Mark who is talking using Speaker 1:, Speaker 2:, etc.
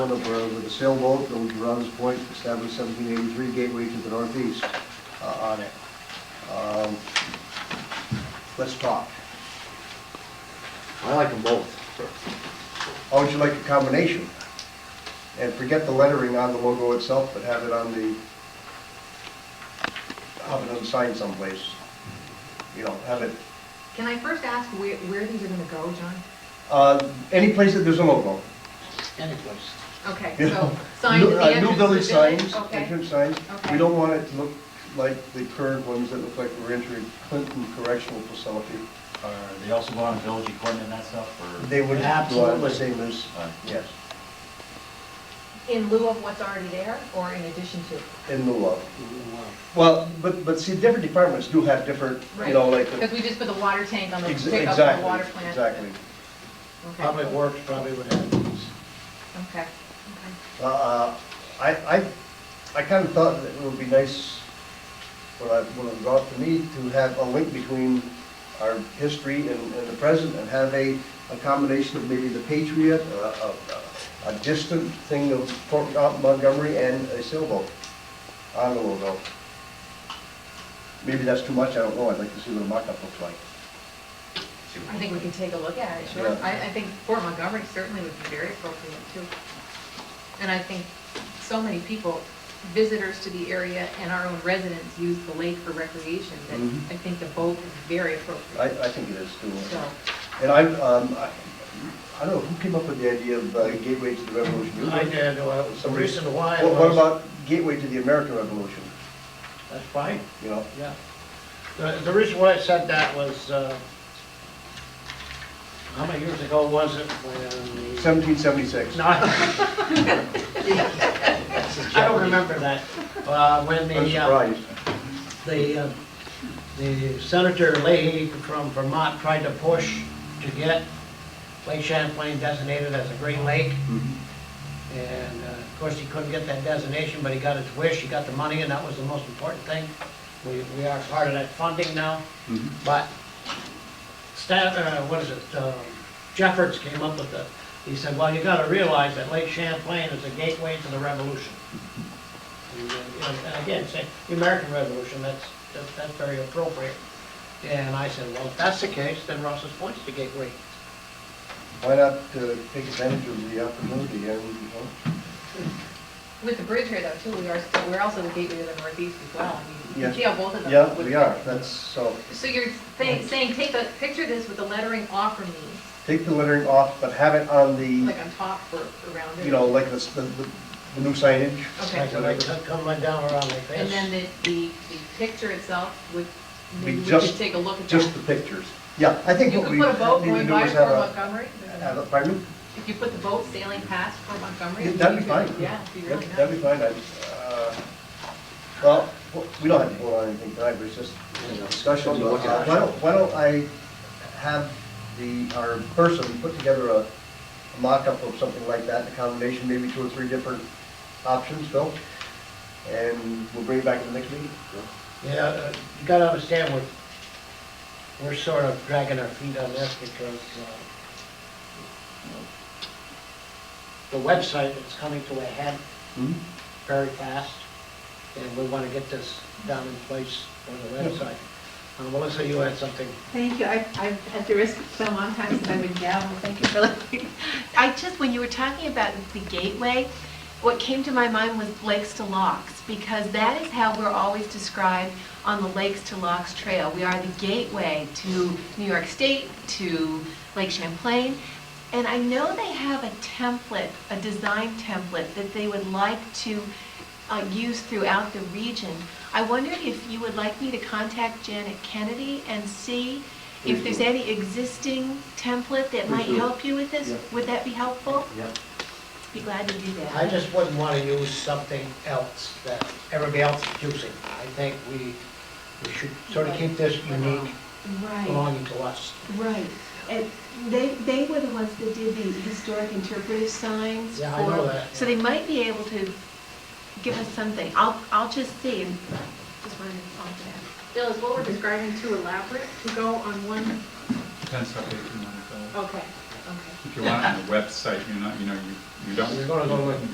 Speaker 1: That we're uh, with a sailboat that was Rounds Point, established 1783 gateway to the northeast uh, on it. Um, Let's talk.
Speaker 2: I like them both.
Speaker 1: How would you like a combination? And forget the lettering on the logo itself, but have it on the, have it on the sign someplace. You know, have it,
Speaker 3: Can I first ask where, where these are gonna go, John?
Speaker 1: uh, any place that there's a logo.
Speaker 4: Any place.
Speaker 3: Okay,
Speaker 1: you
Speaker 3: so
Speaker 1: know.
Speaker 3: signs
Speaker 1: New-
Speaker 3: at the
Speaker 1: uh,
Speaker 3: entrance.
Speaker 1: New village
Speaker 3: to the village,
Speaker 1: signs,
Speaker 3: Okay,
Speaker 1: entrance signs. We
Speaker 3: Okay.
Speaker 1: don't want it to look like the current ones that look like we're entering Clinton Correctional Facility.
Speaker 5: Are they also going on village equipment and that stuff, or?
Speaker 1: They would have to look the
Speaker 4: Absolutely.
Speaker 1: same as,
Speaker 5: Uh,
Speaker 1: yes,
Speaker 3: in lieu of what's already there, or in addition to?
Speaker 1: in the law. Well, but, but see, different departments do have different, you know, like. the-
Speaker 3: Because we just put the water tank on the,
Speaker 1: Ex-
Speaker 3: pick up on the
Speaker 1: Exactly,
Speaker 3: water plant.
Speaker 1: exactly.
Speaker 3: Okay.
Speaker 4: Public Works probably would have these.
Speaker 3: Okay, okay.
Speaker 1: Uh, I, I, I kind of thought that it would be nice, uh, what I, what it brought to me, to have a link between our history and, and the present, and have a, a combination of maybe the Patriot, a, a, a distant thing of Fort Montgomery and a sailboat on the logo. Maybe that's too much, I don't know, I'd like to see what a mock-up looks like.
Speaker 3: I think we can take a look at it, sure.
Speaker 1: Yeah.
Speaker 3: I, I think Fort Montgomery certainly would be very appropriate too. And I think so many people, visitors to the area and our own residents use the lake for recreation, that
Speaker 1: Mhm.
Speaker 3: I think the boat is very
Speaker 1: I,
Speaker 3: appropriate.
Speaker 1: I think it is too.
Speaker 3: So,
Speaker 1: And I, um, I, I don't know, who came up with the idea of uh, Gateway to the Revolution? You?
Speaker 4: I did, well, the
Speaker 1: Somebody-
Speaker 4: reason why
Speaker 1: What what
Speaker 4: was,
Speaker 1: about gateway to the American Revolution,
Speaker 4: that's fine,
Speaker 1: you know?
Speaker 4: yeah. The, the reason why I said that was, uh, how many years ago was it when the?
Speaker 1: 1776.
Speaker 4: No. I don't remember that. Uh, when
Speaker 1: I'm
Speaker 4: the, uh,
Speaker 1: surprised.
Speaker 4: the, uh, the Senator Leahy from Vermont tried to push to get Lake Champlain designated as a great lake. And uh, of course, he couldn't get that designation, but he got his wish, he got the money, and that was the most important thing. We, we are part of that funding now, but staff, uh, what is it, um, Jeffords came up with the, he said, well, you gotta realize that Lake Champlain is a gateway to the revolution. And, uh, And again, say, the American Revolution, that's, that's, that's very appropriate. And I said, well, if that's the case, then Ross's Point's the gateway.
Speaker 1: Why not uh, take advantage of the opportunity and, you know?
Speaker 3: with the bridge here though too, we are, still- we're also the gateway to the northeast as well. I mean, You
Speaker 1: Yeah.
Speaker 3: can see how both of them.
Speaker 1: Yeah,
Speaker 3: would
Speaker 1: we
Speaker 3: fit.
Speaker 1: are, that's, so,
Speaker 3: So you're saying, saying, take the, picture this with the lettering off from me,
Speaker 1: take the lettering off, but have it on the,
Speaker 3: like on top or around it.
Speaker 1: you know, like the, s- the the new signage.
Speaker 3: Okay.
Speaker 4: Like, like, that come right down around like
Speaker 3: And then
Speaker 4: this.
Speaker 3: the, the, the picture itself would, maybe
Speaker 1: Be
Speaker 3: we
Speaker 1: just-
Speaker 3: could take a look at
Speaker 1: Just
Speaker 3: that.
Speaker 1: the pictures. Yeah, I think
Speaker 3: You
Speaker 1: what
Speaker 3: could
Speaker 1: we
Speaker 3: put a boat
Speaker 1: need to
Speaker 3: going
Speaker 1: do
Speaker 3: by
Speaker 1: is
Speaker 3: Fort
Speaker 1: have a,
Speaker 3: Montgomery.
Speaker 1: uh, have a, pardon me?
Speaker 3: If you put the boat sailing past Fort Montgomery.
Speaker 1: Yeah,
Speaker 3: you
Speaker 1: That'd be
Speaker 3: could-
Speaker 1: fine.
Speaker 3: Yeah, it'd be really
Speaker 1: That'd-
Speaker 3: nice.
Speaker 1: That'd be fine, I, uh, well, we don't have to vote on anything tonight, but it's just discussion.
Speaker 2: Something to look
Speaker 1: Uh,
Speaker 2: at.
Speaker 1: Why don't, why don't I have the, our person put together a a mock-up of something like that, a combination, maybe two or three different options, Phil? And we'll bring it back in the next meeting.
Speaker 4: Yeah, uh, you gotta understand, we're, we're sort of dragging our feet on this because, uh, the website is coming to a head very fast, and we wanna get this down in place for the website. Uh, Melissa, you had something?
Speaker 6: Thank you. I- I've, at the risk of so long time since I've been down, well, thank you for letting me. I just, when you were talking about the gateway, what came to my mind was Lakes to Locks, because that is how we're always described on the Lakes to Locks Trail. We are the gateway to New York State, to Lake Champlain. And I know they have a template, a design template that they would like to uh, used throughout the region. I wondered if you would like me to contact Janet Kennedy and see if there's any existing template that might
Speaker 2: Please do.
Speaker 6: help you with this?
Speaker 2: Yeah.
Speaker 6: Would that be helpful?
Speaker 2: Yep.
Speaker 6: Be glad to do
Speaker 4: I
Speaker 6: that.
Speaker 4: just wouldn't wanna use something else that everybody else is using. I think we, we should sort of keep this unique,
Speaker 6: Right,
Speaker 4: belonging to us.
Speaker 6: right. And they, they were the ones that did the historic interpretive signs.
Speaker 4: Yeah, I know
Speaker 6: for-
Speaker 4: that,
Speaker 6: So
Speaker 4: yeah.
Speaker 6: they might be able to give us something. I'll, I'll just see and just wanted to offer that.
Speaker 3: Bill, is what we're describing too elaborate to go on one?
Speaker 7: Ten separate, two minutes.
Speaker 3: Okay,
Speaker 8: Okay.
Speaker 3: If you want on the website, you're not, you know, you, you don't.
Speaker 2: You're gonna go with